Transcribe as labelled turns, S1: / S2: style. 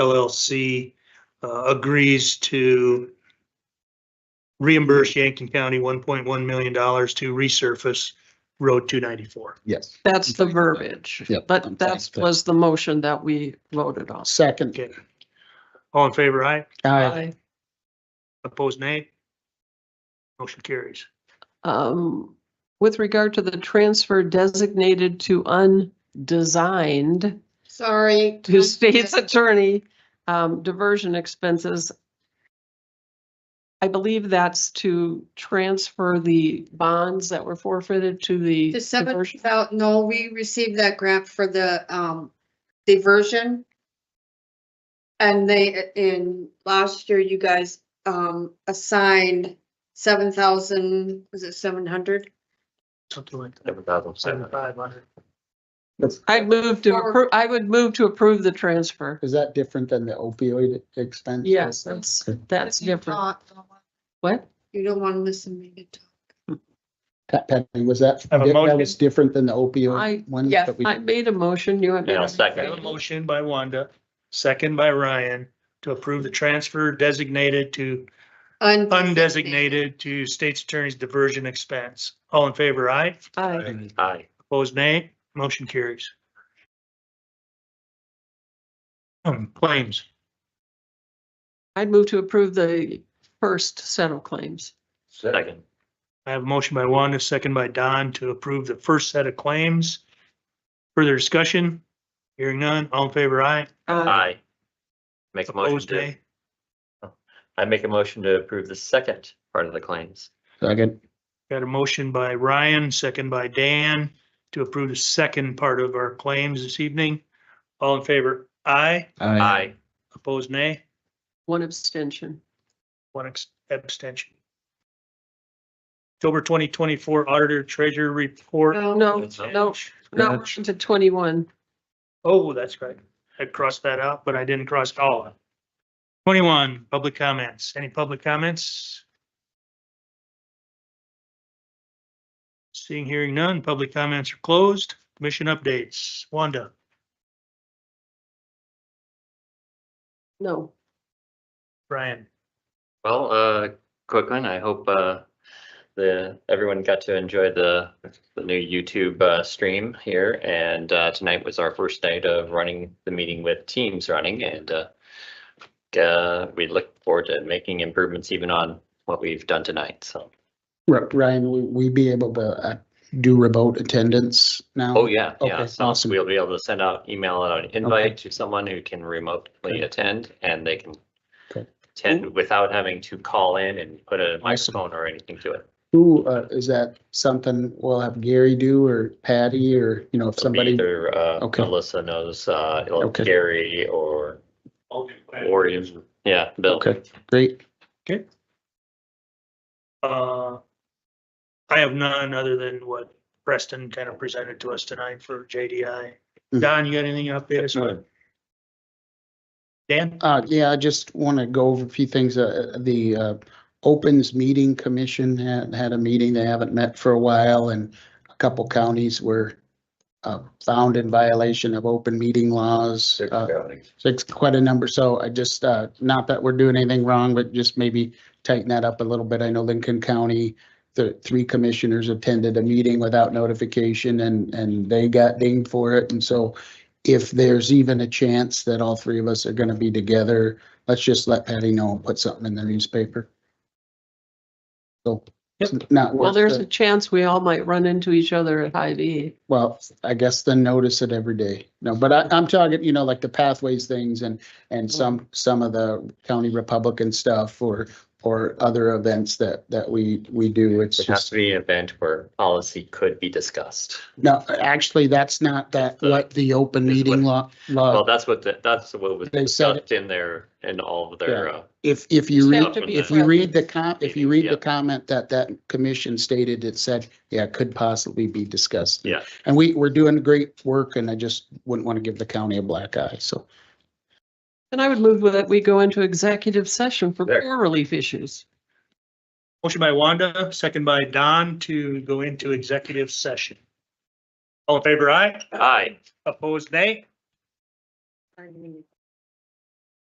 S1: LLC uh, agrees to reimburse Yankton County $1.1 million to resurface Road 294.
S2: Yes.
S3: That's the
S2: Okay.
S3: verbiage,
S2: Yep, I'm
S3: but that
S2: sorry.
S3: was the motion that we voted on.
S2: Second. Uh,
S1: Okay. All in favor, aye?
S2: Aye.
S1: Opposed, nay? Motion carries.
S3: Um, with regard to the transfer designated to undesigned
S4: Sorry.
S3: to state's attorney, um, diversion expenses. I believe that's to transfer the bonds that were forfeited to the.
S4: The seven,
S3: diversion-
S4: thou- no, we received that grant for the um diversion. And they, in last year, you guys um assigned seven thousand, was it seven hundred?
S1: Something like that.
S5: Seven thousand seven.
S1: Seventy-five hundred.
S3: I'd move to, appro- I would move to approve the transfer.
S2: Is that different than the opioid expense?
S3: Yes, that's, that's different. What?
S4: You don't want to listen to me to talk.
S2: Pat- Penny, was that,
S1: Have a
S2: that
S1: motion?
S2: was different than the
S3: I-
S2: opioid one?
S3: Yeah,
S2: that we-
S3: I made a motion, you have.
S5: Yeah, I'll
S1: I have a
S5: second.
S1: motion by Wanda, second by Ryan, to approve the transfer designated to
S4: Undesignated.
S1: undesignated to state's attorney's diversion expense. All in favor, aye?
S3: Aye.
S5: Aye.
S1: Opposed, nay? Motion carries. Um, claims.
S3: I'd move to approve the first set of claims.
S5: Second.
S1: I have a motion by Wanda, second by Don to approve the first set of claims. Further discussion? Hearing none, all in favor, aye?
S3: Uh,
S5: Aye. Make a motion
S1: Opposed,
S5: to,
S1: nay?
S5: I make a motion to approve the second part of the claims.
S2: Second.
S1: Got a motion by Ryan, second by Dan to approve the second part of our claims this evening. All in favor, aye?
S5: Aye.
S1: Opposed, nay?
S3: One abstention.
S1: One ex- abstention. October twenty twenty-four auditor treasurer report.
S4: No,
S3: No, no, no,
S2: Scratch.
S3: to twenty-one.
S1: Oh, that's right. I crossed that out, but I didn't cross it all out. Twenty-one, public comments. Any public comments? Seeing, hearing none, public comments are closed. Commission updates. Wanda,
S3: No,
S1: Brian,
S5: Well, uh, quick one. I hope, uh, the, everyone got to enjoy the, the new YouTube, uh, stream here. And, uh, tonight was our first night of running the meeting with Teams running and, uh, uh, we look forward to making improvements even on what we've done tonight. So,
S2: R- Ryan, will we be able to uh, do remote attendance now?
S5: oh, yeah, yeah.
S2: Um, Okay,
S5: So
S2: awesome.
S5: we'll be able to send out, email out an invite to someone who can remotely
S2: Okay.
S5: attend and they can
S2: Okay.
S5: attend without having to call in and put a
S2: Awesome.
S5: microphone or anything to it.
S2: Who, uh, is that something we'll have Gary do or Patty or, you know, if
S5: It'll be
S2: somebody?
S5: Either uh,
S2: Okay.
S5: Melissa knows, uh, it'll-
S2: Okay.
S5: Gary or, or even, yeah, Bill.
S2: Okay, great.
S1: uh, I have none other than what Preston kind of presented to us tonight for JDI. Don, you got anything up there? Dan?
S2: Uh, yeah, I just want to go over a few things. Uh, the, uh, Opens Meeting Commission had, had a meeting. They haven't met for a while and a couple counties were uh, found in violation of open meeting laws. Uh, So it's quite a number. So I just, uh, not that we're doing anything wrong, but just maybe tighten that up a little bit. I know Lincoln County, the three commissioners attended a meeting without notification and, and they got dinged for it. And so if there's even a chance that all three of us are gonna be together, let's just let Patty know and put something in the newspaper. So it's not
S3: well,
S2: worth
S3: there's a
S2: it.
S3: chance we all might run into each other at Hy-Vee.
S2: Well, I guess then notice it every day. No, but I, I'm talking, you know, like the pathways things and,
S5: Mm-hmm.
S2: and some, some of the county Republican stuff or, or other events that, that we, we do. It's
S5: It has
S2: just,
S5: to be an event where policy could be discussed.
S2: no, actually, that's not that, what the open
S5: It's
S2: meeting law,
S5: Well,
S2: law,
S5: that's what, the- that's what was
S2: Uh, They said-
S5: discussed in their, in all of their, uh,
S2: if, if you
S3: It's
S2: read.
S3: got to be
S2: If you read the com, if you read
S5: Yeah.
S2: the comment that that commission stated, it said, yeah, it could possibly be discussed.
S5: Yeah.
S2: And we, we're doing great work and I just wouldn't want to give the county a black eye. So
S3: And I would move that we go into executive session for
S5: There.
S3: poor relief issues.
S1: Motion by Wanda, second by Don to go into executive session. All in favor, aye?
S5: aye.
S1: Opposed, nay?
S4: Pardon me.